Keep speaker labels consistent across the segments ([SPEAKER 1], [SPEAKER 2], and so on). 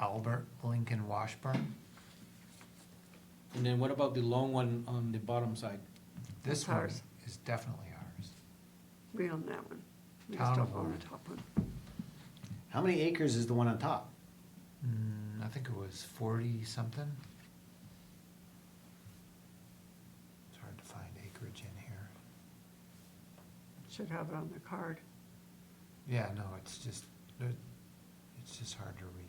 [SPEAKER 1] Albert Lincoln Washburn.
[SPEAKER 2] And then what about the long one on the bottom side?
[SPEAKER 1] This
[SPEAKER 3] That's
[SPEAKER 1] one
[SPEAKER 3] ours.
[SPEAKER 1] is definitely ours.
[SPEAKER 3] We own that one. We
[SPEAKER 1] Town
[SPEAKER 3] just don't
[SPEAKER 1] of
[SPEAKER 3] own
[SPEAKER 1] Warren.
[SPEAKER 3] the top one.
[SPEAKER 4] How many acres is the one on top?
[SPEAKER 1] Mm, I think it was forty something. It's hard to find acreage in here.
[SPEAKER 3] Should have it on the card.
[SPEAKER 1] Yeah, no, it's just, it- it's just hard to read.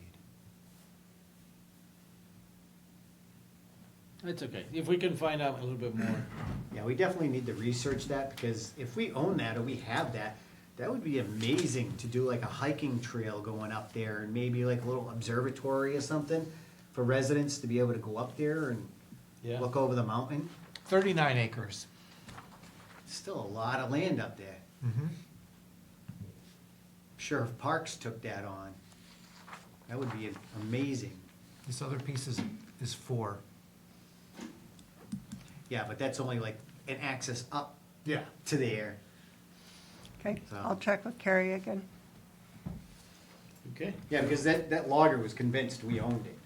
[SPEAKER 2] It's okay, if we can find out a little bit more.
[SPEAKER 4] Yeah, we definitely need to research that because if we own that or we have that, that would be amazing to do like a hiking trail going up there and maybe like a little observatory or something for residents to be able to go up there and
[SPEAKER 2] Yeah.
[SPEAKER 4] look over the mountain.
[SPEAKER 1] Thirty-nine acres.
[SPEAKER 4] Still a lot of land up there.
[SPEAKER 1] Mm-hmm.
[SPEAKER 4] Sheriff Parks took that on. That would be amazing.
[SPEAKER 1] This other piece is, is four.
[SPEAKER 4] Yeah, but that's only like an access up
[SPEAKER 1] Yeah.
[SPEAKER 4] to there.
[SPEAKER 3] Okay,
[SPEAKER 4] So-
[SPEAKER 3] I'll check with Carrie again.
[SPEAKER 2] Okay.
[SPEAKER 4] Yeah, because that, that logger was convinced we owned it.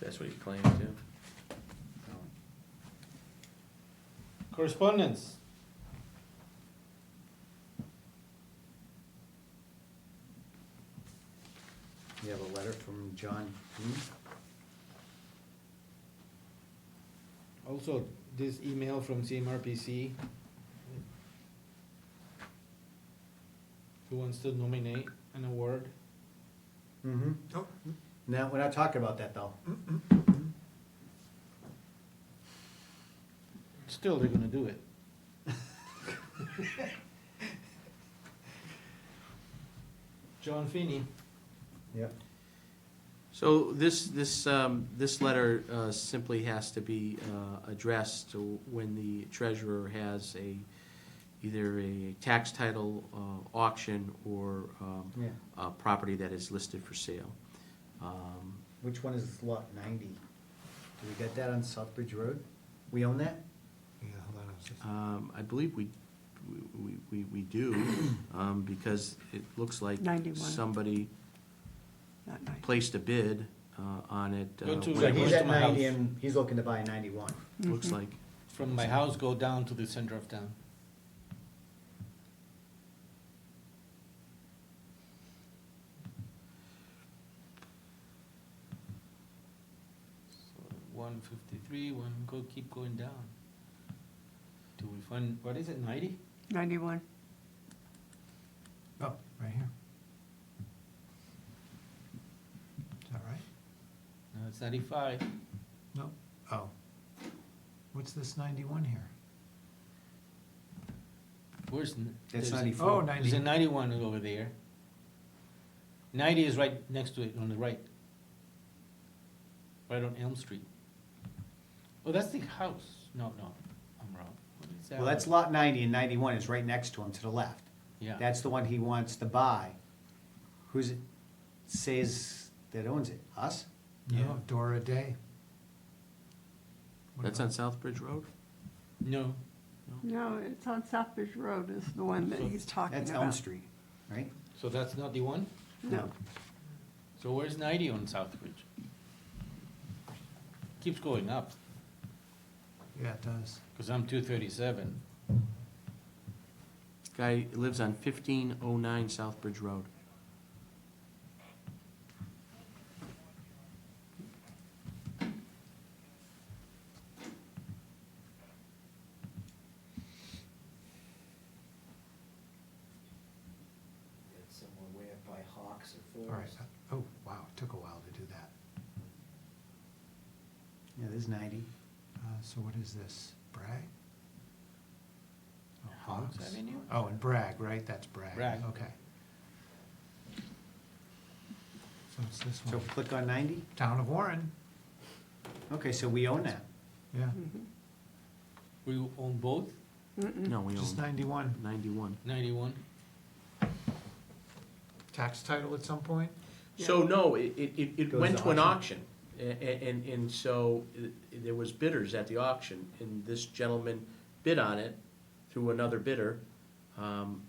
[SPEAKER 5] That's what he claimed too.
[SPEAKER 4] so.
[SPEAKER 2] Correspondence?
[SPEAKER 4] You have a letter from John Hume?
[SPEAKER 2] Also, this email from CMRPC. Who wants to nominate an award?
[SPEAKER 4] Mm-hmm.
[SPEAKER 1] Oh,
[SPEAKER 4] No, we're not talking about that though.
[SPEAKER 3] Mm.
[SPEAKER 2] Still, they're gonna do it. John Finney.
[SPEAKER 4] Yep.
[SPEAKER 5] So this, this, um, this letter, uh, simply has to be, uh, addressed to when the treasurer has a, either a tax title, uh, auction or, um,
[SPEAKER 4] Yeah.
[SPEAKER 5] a property that is listed for sale. Um,
[SPEAKER 4] Which one is lot ninety? Do we get that on Southbridge Road? We own that?
[SPEAKER 1] yeah, hold on, I was just-
[SPEAKER 5] Um, I believe we, we, we, we do, um, because it looks like
[SPEAKER 3] 91.
[SPEAKER 5] somebody
[SPEAKER 3] Not nice.
[SPEAKER 5] placed a bid, uh, on it.
[SPEAKER 2] Go
[SPEAKER 5] uh,
[SPEAKER 2] to-
[SPEAKER 5] when
[SPEAKER 4] So
[SPEAKER 2] Like,
[SPEAKER 5] it
[SPEAKER 4] he's
[SPEAKER 5] was-
[SPEAKER 2] where's
[SPEAKER 4] at
[SPEAKER 2] my
[SPEAKER 4] ninety
[SPEAKER 2] house?
[SPEAKER 4] and he's looking to buy ninety-one.
[SPEAKER 5] Looks
[SPEAKER 3] Mm-hmm.
[SPEAKER 5] like,
[SPEAKER 2] From my house, go down to the center of town. So One fifty-three, one, go, keep going down. Do we find, what is it, ninety?
[SPEAKER 3] Ninety-one.
[SPEAKER 1] Oh, right here. Is that right?
[SPEAKER 2] No, it's ninety-five.
[SPEAKER 1] No. Oh. What's this ninety-one here?
[SPEAKER 2] Where's? n-
[SPEAKER 4] That's
[SPEAKER 2] there's a-
[SPEAKER 4] 94.
[SPEAKER 1] Oh,
[SPEAKER 2] There's
[SPEAKER 1] 90.
[SPEAKER 2] a ninety-one over there. Ninety is right next to it, on the right. Right on Elm Street. Oh, that's the house. No, no, I'm wrong. What is that?
[SPEAKER 4] Well, that's lot ninety and ninety-one is right next to him to the left.
[SPEAKER 2] Yeah.
[SPEAKER 4] That's the one he wants to buy. Who's it, says that owns it? Us?
[SPEAKER 1] No,
[SPEAKER 2] Yeah.
[SPEAKER 1] Dora Day. What
[SPEAKER 5] that's on
[SPEAKER 1] about-
[SPEAKER 5] South Bridge Road?
[SPEAKER 2] No,
[SPEAKER 3] No, it's on Southbridge Road is the one that
[SPEAKER 2] So
[SPEAKER 3] he's talking about.
[SPEAKER 4] That's Elm Street, right?
[SPEAKER 2] so that's not the one?
[SPEAKER 3] No,
[SPEAKER 2] So where's ninety on Southbridge? Keeps going up,
[SPEAKER 1] Yeah, it does.
[SPEAKER 2] cause I'm two thirty-seven.
[SPEAKER 5] This Guy lives on fifteen oh nine South Bridge Road.
[SPEAKER 6] It's somewhere way up by Hawks or
[SPEAKER 1] All right.
[SPEAKER 6] Forest.
[SPEAKER 1] uh, Oh, wow, it took a while to do that.
[SPEAKER 4] Yeah, there's ninety.
[SPEAKER 1] Uh, so what is this? Bragg? Oh,
[SPEAKER 2] Hawks
[SPEAKER 1] Hawks?
[SPEAKER 2] Avenue?
[SPEAKER 1] Oh, and Bragg, right? That's Bragg.
[SPEAKER 2] Bragg.
[SPEAKER 1] Okay. So it's this
[SPEAKER 4] So
[SPEAKER 1] one.
[SPEAKER 2] Oh.
[SPEAKER 4] click on ninety?
[SPEAKER 1] Town of Warren.
[SPEAKER 4] Okay, so we own that.
[SPEAKER 1] Yeah,
[SPEAKER 2] Hmm. We own both,
[SPEAKER 3] mm-mm.
[SPEAKER 5] No, we
[SPEAKER 1] just
[SPEAKER 5] own
[SPEAKER 1] ninety-one.
[SPEAKER 5] ninety-one.
[SPEAKER 2] ninety-one?
[SPEAKER 1] Tax title at some point?
[SPEAKER 5] So, no, it, it- it, it
[SPEAKER 4] Goes
[SPEAKER 5] went
[SPEAKER 4] to
[SPEAKER 5] to an auction, A- a- and, and so uh, there was bidders at the auction, and this gentleman bid on it through another bidder. Um,